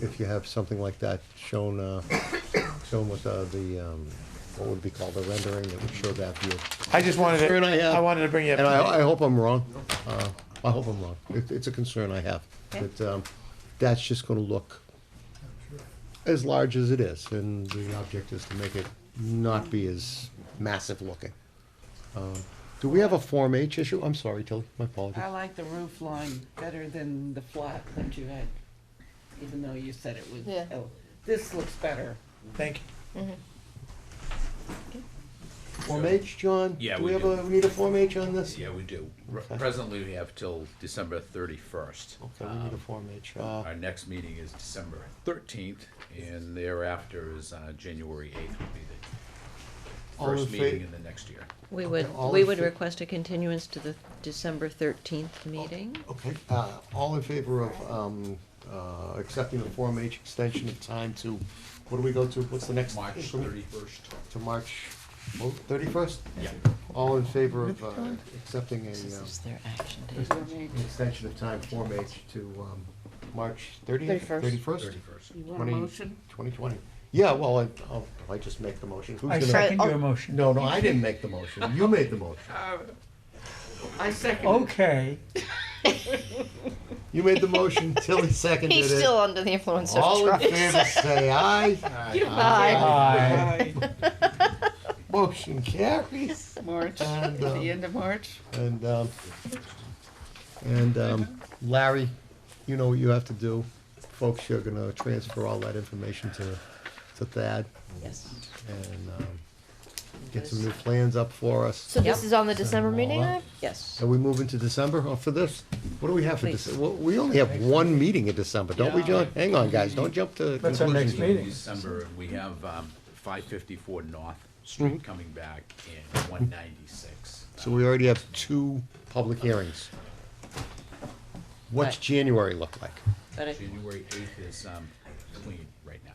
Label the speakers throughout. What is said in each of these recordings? Speaker 1: if you have something like that shown, uh, shown with uh, the, um, what would be called the rendering that would show that view.
Speaker 2: I just wanted
Speaker 1: Sure,
Speaker 2: to,
Speaker 1: and I have-
Speaker 2: I wanted to bring you up.
Speaker 1: And
Speaker 2: to
Speaker 1: I, I
Speaker 2: date.
Speaker 1: hope I'm wrong. Uh, I hope I'm wrong. It, it's a concern I have.
Speaker 3: Okay.
Speaker 1: That, um, that's just gonna look as large as it is, and the object is to make it not be as massive looking. Um, Do we have a Form H issue? I'm sorry, Tilly, my apologies.
Speaker 4: I
Speaker 5: Oh.
Speaker 4: like the roof line better than the flat that you had, even though you said it was,
Speaker 3: Yeah.
Speaker 4: oh, this looks better.
Speaker 2: Thank you.
Speaker 1: Form H, John?
Speaker 6: Yeah,
Speaker 1: Do
Speaker 6: we
Speaker 1: we have
Speaker 6: do.
Speaker 1: a, we need a Form H on this?
Speaker 6: Yeah, we do. R- Presently, we have till December thirty-first.
Speaker 1: Okay, we need a Form H. Uh,
Speaker 6: Our next meeting is December thirteenth, and thereafter is, uh, January eighth will be the
Speaker 1: All in
Speaker 6: first meeting
Speaker 1: fa-
Speaker 6: in the next year.
Speaker 5: We would,
Speaker 1: all
Speaker 5: we
Speaker 1: in
Speaker 5: would
Speaker 1: fa- Oh,
Speaker 5: request a continuance to the December thirteenth meeting.
Speaker 1: Okay, uh, all in favor of, um, uh, accepting the Form H extension of time to, what do we go to? What's the next?
Speaker 6: March thirty-first.
Speaker 1: To March thirty-first?
Speaker 6: Yeah.
Speaker 1: All in favor of, uh, accepting a,
Speaker 5: This is
Speaker 1: um,
Speaker 5: their action date.
Speaker 4: You
Speaker 1: extension of time Form H to, um, March thirtieth?
Speaker 3: 31st.
Speaker 1: Thirty-first?
Speaker 6: Thirty-first.
Speaker 4: want a motion?
Speaker 1: Twenty twenty. Yeah, well, I, I'll, I just make the motion. Who's
Speaker 2: I
Speaker 1: gonna-
Speaker 2: second
Speaker 3: Right,
Speaker 2: your
Speaker 3: oh,
Speaker 2: motion.
Speaker 1: No, no, I didn't make the motion. You made the motion.
Speaker 4: I second it.
Speaker 2: Okay,
Speaker 1: You made the motion, Tilly seconded it.
Speaker 3: He's still under the influence of
Speaker 1: All in
Speaker 3: drugs.
Speaker 1: favor, say aye.
Speaker 2: aye.
Speaker 1: Motion carries.
Speaker 4: March,
Speaker 1: And, uh,
Speaker 4: the end of March.
Speaker 1: And, um, and, um, Larry, you know what you have to do. Folks, you're gonna transfer all that information to, to Thad
Speaker 5: Yes.
Speaker 1: and, um, get some new plans up for us.
Speaker 3: So this is on the December
Speaker 1: Send them all
Speaker 3: meeting,
Speaker 1: out.
Speaker 3: then?
Speaker 5: Yes.
Speaker 1: Are we moving to December or for this? What do we have for
Speaker 5: Please.
Speaker 1: December? We only have one meeting in December, don't we, John? Hang on, guys, don't jump to
Speaker 2: That's our next
Speaker 1: conclusions.
Speaker 2: meeting.
Speaker 6: December, and we have, um, five fifty-four North Street coming back and one ninety-six.
Speaker 1: So we already have two public hearings. What's
Speaker 5: Right.
Speaker 1: January look like?
Speaker 5: But I,
Speaker 6: January eighth is, um, clean right now.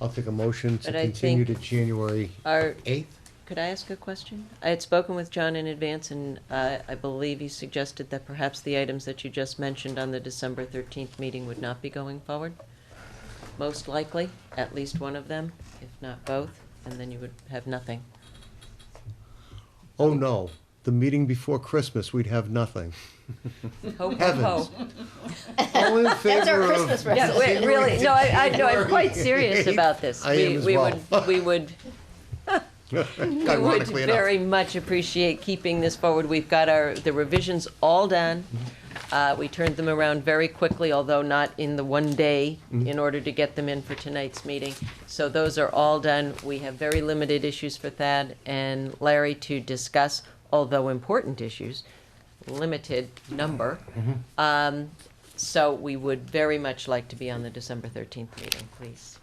Speaker 1: I'll take a motion to
Speaker 5: But I
Speaker 1: continue to
Speaker 5: think-
Speaker 1: January
Speaker 5: are,
Speaker 1: eighth.
Speaker 5: could I ask a question? I had spoken with John in advance and, uh, I believe he suggested that perhaps the items that you just mentioned on the December thirteenth meeting would not be going forward. Most likely, at least one of them, if not both, and then you would have nothing.
Speaker 1: Oh, no, the meeting before Christmas, we'd have nothing.
Speaker 5: Ho, ho,
Speaker 1: Heavens.
Speaker 5: ho.
Speaker 1: All in
Speaker 3: That's our
Speaker 1: favor of-
Speaker 3: Christmas present.
Speaker 5: Yeah, wait, really, no, I, I, no, I'm quite serious about this.
Speaker 1: I
Speaker 5: We-
Speaker 1: am as
Speaker 5: we
Speaker 1: well.
Speaker 5: would- We would, we would
Speaker 1: Ironically enough.
Speaker 5: very much appreciate keeping this forward. We've got our, the revisions all done.
Speaker 1: Mm-hmm.
Speaker 5: Uh, we turned them around very quickly, although not in the one day,
Speaker 1: Mm-hmm.
Speaker 5: in order to get them in for tonight's meeting. So those are all done. We have very limited issues for Thad and Larry to discuss, although important issues, limited number.
Speaker 1: Mm-hmm.
Speaker 5: Um, so we would very much like to be on the December thirteenth meeting, please.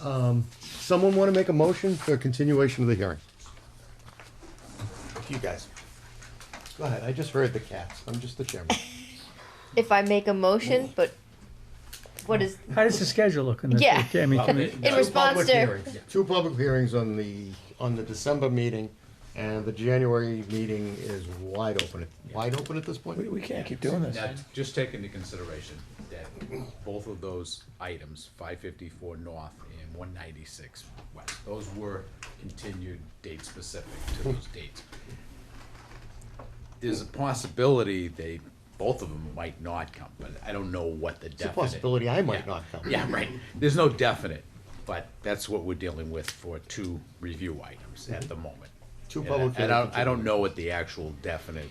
Speaker 1: Someone want to make a motion for continuation of the hearing? You guys. Go ahead, I just heard the cats, I'm just the chairman.
Speaker 3: If I make a motion, but what is,
Speaker 7: How does the schedule look in this?
Speaker 3: Yeah.
Speaker 7: week? I mean, can we-
Speaker 6: Well,
Speaker 3: in response
Speaker 1: Public
Speaker 3: to,
Speaker 1: hearings. Two public hearings on the, on the December meeting, and the January meeting is wide open, wide open at this point?
Speaker 2: We, we can't keep doing this.
Speaker 6: Now, just take into consideration that both of those items, five fifty-four north and one ninety-six west, those were continued date specific to those dates. There's a possibility they, both of them might not come, but I don't know what the
Speaker 1: It's a
Speaker 6: definite.
Speaker 1: possibility I might
Speaker 6: Yeah.
Speaker 1: not come.
Speaker 6: Yeah, right, there's no definite, but that's what we're dealing with for two review items at the moment.
Speaker 1: Mm-hmm. Two
Speaker 6: And I-
Speaker 1: public
Speaker 6: And I don't, I
Speaker 1: hearings.
Speaker 6: don't know what the actual definite,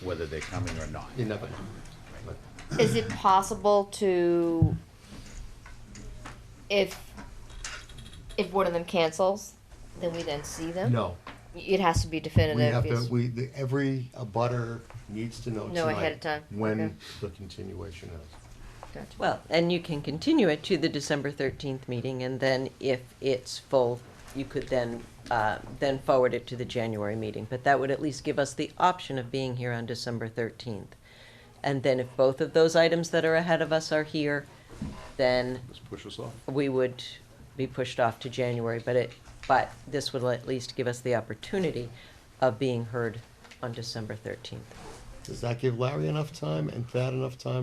Speaker 6: whether they're coming or not.
Speaker 1: You never know.
Speaker 3: is it possible to, if, if one of them cancels, then we then see them?
Speaker 1: No,
Speaker 3: It has to be
Speaker 1: we
Speaker 3: definitive.
Speaker 1: have to,
Speaker 3: yes.
Speaker 1: we, the- every abutter needs to know tonight.
Speaker 3: Know ahead of time, okay.
Speaker 1: When the continuation is.
Speaker 3: Gotcha.
Speaker 5: Well, and you can continue it to the December 13th meeting, and then if it's full, you could then, uh, then forward it to the January meeting. But that would at least give us the option of being here on December 13th. And then if both of those items that are ahead of us are here, then
Speaker 1: Just push us off.
Speaker 5: we would be pushed off to January. But it, but this would at least give us the opportunity of being heard on December 13th.
Speaker 1: Does that give Larry enough time and Thad enough time